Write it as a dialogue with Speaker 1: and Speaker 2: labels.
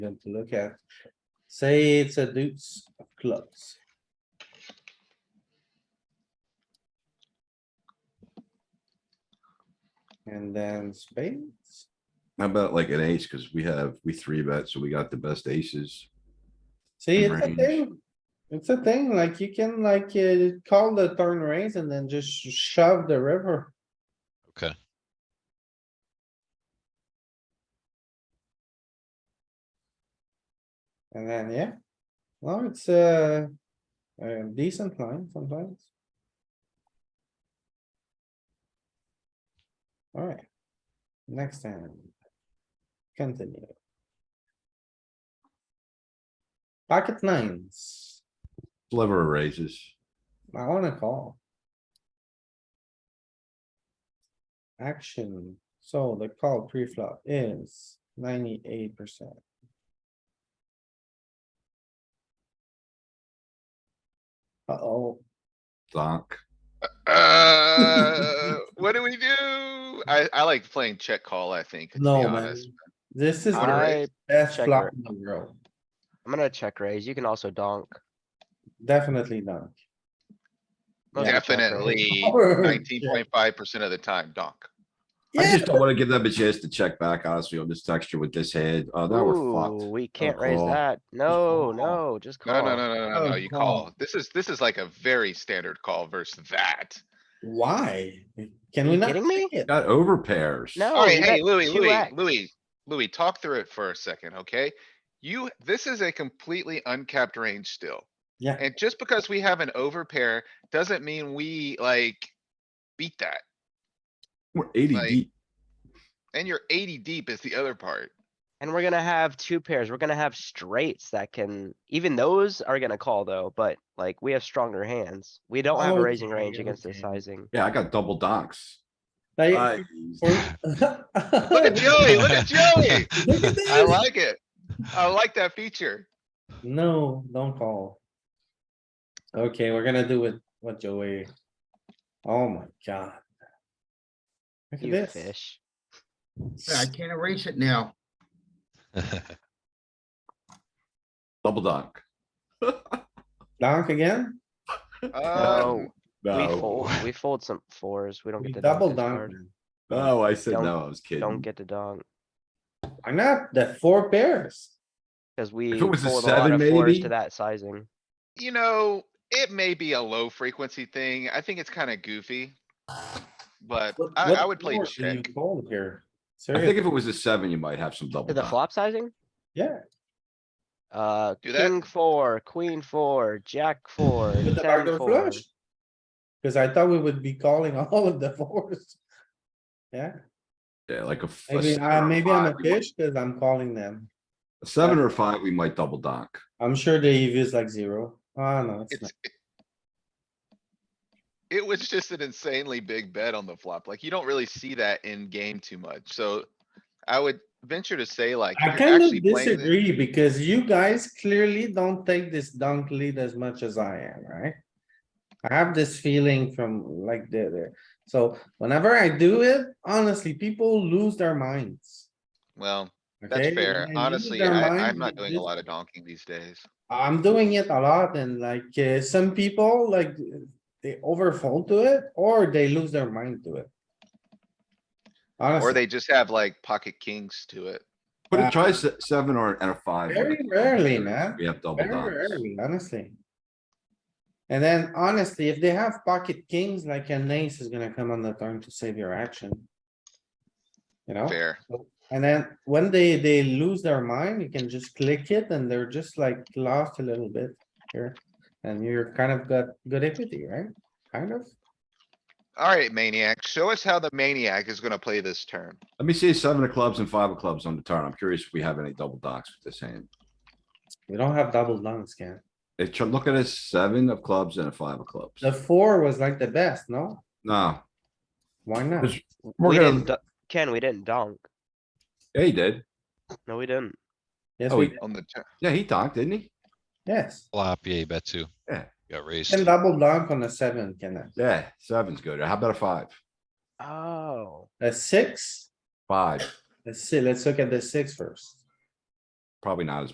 Speaker 1: Good to look at. Say it's a deuce of clubs. And then spades.
Speaker 2: How about like an ace? Cause we have, we three bet, so we got the best aces.
Speaker 1: See,
Speaker 2: And
Speaker 1: it's a
Speaker 2: range.
Speaker 1: thing. It's a thing, like you can like, uh, call the turn raise and then just shove the river.
Speaker 3: Okay,
Speaker 1: And then, yeah. Well, it's a, a decent line sometimes. Alright. Next time. Continue. Pocket nines.
Speaker 2: Sliver raises.
Speaker 1: I wanna call. Action. So the call pre-flop is ninety-eight percent. Uh-oh.
Speaker 2: Donk.
Speaker 4: Uh, what do we do? I, I like playing check call, I think. to be
Speaker 1: No, man.
Speaker 4: honest.
Speaker 1: This is the
Speaker 5: I,
Speaker 1: best
Speaker 5: check
Speaker 1: flop
Speaker 5: raise.
Speaker 1: in the world.
Speaker 5: I'm gonna check raise. You can also donk.
Speaker 1: Definitely not.
Speaker 5: I'm gonna check raise.
Speaker 4: Definitely
Speaker 1: Oh,
Speaker 4: nineteen
Speaker 1: yeah.
Speaker 4: point five percent of the time, donk.
Speaker 2: I
Speaker 1: Yeah,
Speaker 2: just don't wanna give them a chance to check back honestly on this texture with this head. Oh, now we're
Speaker 5: Ooh,
Speaker 2: fucked.
Speaker 5: we can't raise
Speaker 2: call.
Speaker 5: that.
Speaker 2: call.
Speaker 5: No, no, just
Speaker 4: No,
Speaker 5: call.
Speaker 4: no, no, no, no,
Speaker 1: Oh,
Speaker 4: no, you
Speaker 1: call.
Speaker 4: call. This is, this is like a very standard call versus that.
Speaker 1: why? Can
Speaker 5: Are
Speaker 1: we
Speaker 5: you
Speaker 1: not?
Speaker 5: kidding me?
Speaker 1: check it?
Speaker 2: Got over pairs.
Speaker 5: No. Oh,
Speaker 4: Alright,
Speaker 5: you
Speaker 4: hey,
Speaker 5: got
Speaker 4: Louis,
Speaker 5: two
Speaker 4: Louis,
Speaker 5: X.
Speaker 4: Louis, Louis, talk through it for a second, okay? You, this is a completely uncapped range still.
Speaker 1: Yeah.
Speaker 4: And just because we have an overpair doesn't mean we like beat that.
Speaker 2: We're eighty
Speaker 4: Like-
Speaker 2: deep.
Speaker 4: And you're eighty deep is the other part.
Speaker 5: And we're gonna have two pairs. We're gonna have straights that can, even those are gonna call though, but like we have stronger hands. We don't have a raising
Speaker 1: Oh, Okay,
Speaker 5: range against this
Speaker 1: okay.
Speaker 5: sizing.
Speaker 2: Yeah, I got double donks.
Speaker 1: Like,
Speaker 2: I-
Speaker 4: Look at Joey, look at Joey.
Speaker 1: Look at
Speaker 4: I
Speaker 1: this.
Speaker 4: like it. I like that feature.
Speaker 1: No, don't call. Okay, we're gonna do it, what Joey? Oh my god. Look
Speaker 5: You
Speaker 1: at this.
Speaker 5: fish.
Speaker 6: Yeah, I can't erase it now.
Speaker 2: Double donk.
Speaker 1: Donk again?
Speaker 5: Oh.
Speaker 4: Um,
Speaker 5: We
Speaker 2: No,
Speaker 5: fold, we fold some fours. We don't
Speaker 1: We
Speaker 5: get to donk
Speaker 1: double
Speaker 5: this
Speaker 1: donk.
Speaker 5: card.
Speaker 1: man.
Speaker 2: no, I said
Speaker 5: Don't-
Speaker 2: no, I was
Speaker 5: Don't
Speaker 2: kidding.
Speaker 5: get to donk,
Speaker 1: Why not? The four pairs.
Speaker 5: cause we
Speaker 2: it was a
Speaker 5: fold a lot
Speaker 2: seven,
Speaker 5: of fours
Speaker 2: maybe?
Speaker 5: to that sizing.
Speaker 4: you know, it may be a low frequency thing. I think it's kinda goofy. But
Speaker 1: What-
Speaker 4: I,
Speaker 1: what
Speaker 4: I would play
Speaker 1: more do you
Speaker 4: check.
Speaker 1: Fold here.
Speaker 2: I think
Speaker 1: Seriously,
Speaker 2: if it was a seven, you might have some double
Speaker 5: To the
Speaker 2: donk.
Speaker 5: flop sizing?
Speaker 1: yeah.
Speaker 5: Uh,
Speaker 4: Do that.
Speaker 5: king four, queen four, jack four,
Speaker 1: With the
Speaker 5: ten
Speaker 1: backdoor
Speaker 5: four.
Speaker 1: flush. Cause I thought we would be calling all of the fours. Yeah,
Speaker 2: Yeah, like a. f- a
Speaker 1: maybe,
Speaker 2: seven
Speaker 1: uh,
Speaker 2: or
Speaker 1: maybe I'm
Speaker 2: five,
Speaker 1: a
Speaker 2: we might-
Speaker 1: bitch cuz I'm calling them.
Speaker 2: a Seven or five, we might double donk.
Speaker 1: I'm sure the EV is like zero. Ah, no, it's not.
Speaker 4: It's. it- It was just an insanely big bet on the flop. Like, you don't really see that in game too much, so I would venture to say like.
Speaker 1: I
Speaker 4: if you're
Speaker 1: kind
Speaker 4: actually
Speaker 1: of
Speaker 4: playing the-
Speaker 1: disagree because you guys clearly don't take this dunk lead as much as I am, right? I have this feeling from like there, there. So whenever I do it, honestly, people lose their minds.
Speaker 4: Well,
Speaker 1: okay?
Speaker 4: that's fair.
Speaker 1: They lose
Speaker 4: Honestly,
Speaker 1: their
Speaker 4: I,
Speaker 1: minds
Speaker 4: I'm not doing a
Speaker 1: because-
Speaker 4: lot of donking these days.
Speaker 1: I'm doing it a lot and like, uh, some people like, they overfold to it or they lose their mind to it.
Speaker 4: Or
Speaker 1: Honestly,
Speaker 4: they just have like pocket kings to it.
Speaker 2: But
Speaker 1: Uh,
Speaker 2: it tries se- seven or and a five. we
Speaker 1: very
Speaker 2: got double
Speaker 1: rarely,
Speaker 2: donks.
Speaker 1: man.
Speaker 2: We have double
Speaker 1: Very
Speaker 2: donks.
Speaker 1: rarely, honestly. And then honestly, if they have pocket kings, like an ace is gonna come on the turn to save your action. You know,
Speaker 4: Fair.
Speaker 1: and then when they, they lose their mind, you can just click it and they're just like lost a little bit here. And you're kind of got good equity, right? Kind of.
Speaker 4: Alright, maniac, show us how the maniac is gonna play this turn.
Speaker 2: Let me see seven of clubs and five of clubs on the turn. I'm curious if we have any double donks with this hand.
Speaker 1: We don't have double dunks, Ken.
Speaker 2: They tr- look at a seven of clubs and a five of clubs.
Speaker 1: The four was like the best, no?
Speaker 2: No,
Speaker 1: Why not?
Speaker 2: It's-
Speaker 5: We
Speaker 2: we're
Speaker 5: didn't,
Speaker 2: gonna,
Speaker 5: do- Ken, we didn't donk.
Speaker 2: yeah, he did.
Speaker 5: No, we didn't.
Speaker 1: Yes,
Speaker 2: Oh,
Speaker 1: we,
Speaker 2: yeah.
Speaker 4: On the turn,
Speaker 2: Yeah, he donked, didn't he?
Speaker 1: yes.
Speaker 3: Flop, yeah, you bet two.
Speaker 2: Yeah.
Speaker 3: Got raised.
Speaker 1: And double dunk on a seven, Ken.
Speaker 2: Yeah, seven's good. How about a five?
Speaker 5: Oh,
Speaker 1: A six?
Speaker 2: Five.
Speaker 1: Let's see, let's look at the six first.
Speaker 2: Probably not as